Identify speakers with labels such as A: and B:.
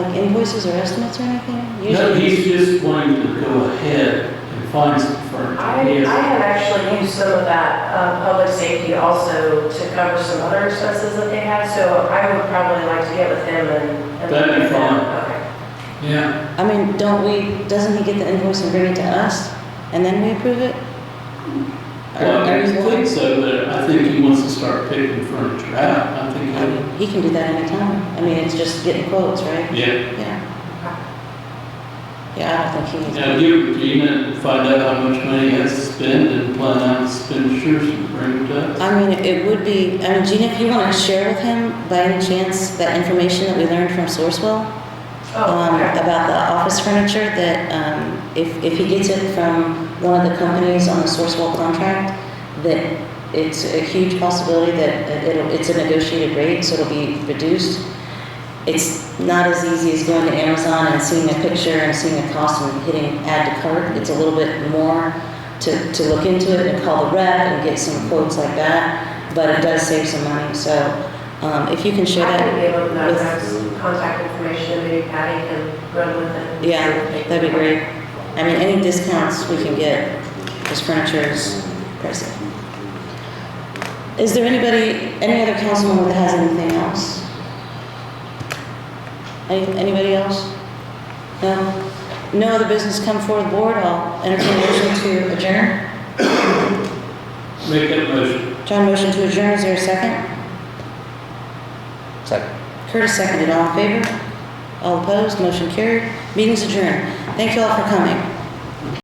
A: um, invoices or estimates or anything?
B: No,
A: Usually,
B: he's just wanting to go ahead and find some furniture.
C: I,
B: He
C: I
B: has-
C: have actually used some of that, um, public safety also to cover some other expenses that they had, so I would probably like to get with him and. and-
B: That'd be fine.
C: Okay.
B: Yeah,
A: I mean, don't we, doesn't he get the invoice and bring it to us and then we approve it? Or-
B: well,
A: or
B: I
A: he's-
B: think so, but I think he wants to start picking furniture out. I think,
A: I
B: that-
A: mean, He can do that anytime. I mean, it's just getting quotes, right?
B: yeah.
A: Yeah. Yeah, I don't think he needs.
B: Now, give it to Gina and find out how much money he has to spend and plan out his expenditures and bring it up.
A: I mean, it would be, I mean, Gina, if you want to share with him by any chance that information that we learned from Sourcewell
C: Oh,
A: um,
C: okay.
A: about the office furniture that um, if, if he gets it from one of the companies on the Sourcewell contract, that it's a huge possibility that it'll, it's a negotiated rate, so it'll be reduced. It's not as easy as going to Amazon and seeing a picture and seeing a cost and hitting add to cart. It's a little bit more to, to look into it and call the rep and get some quotes like that, but it does save some money. So um, if you can share
C: I
A: that.
C: can give him that
A: with-
C: that's contact information, maybe Patty can run with it.
A: Yeah, that'd be great. I mean, any discounts we can get, because furniture is pricey. Is there anybody, any other council member that has anything else? Any, anybody else? No? No other business come forward, board, I'll entertain a motion to adjourn.
B: Make that motion.
A: John, motion to adjourn, is there a second?
D: Second.
A: Curtis seconded, all in favor? All opposed, motion carried, meeting's adjourned. Thank you all for coming.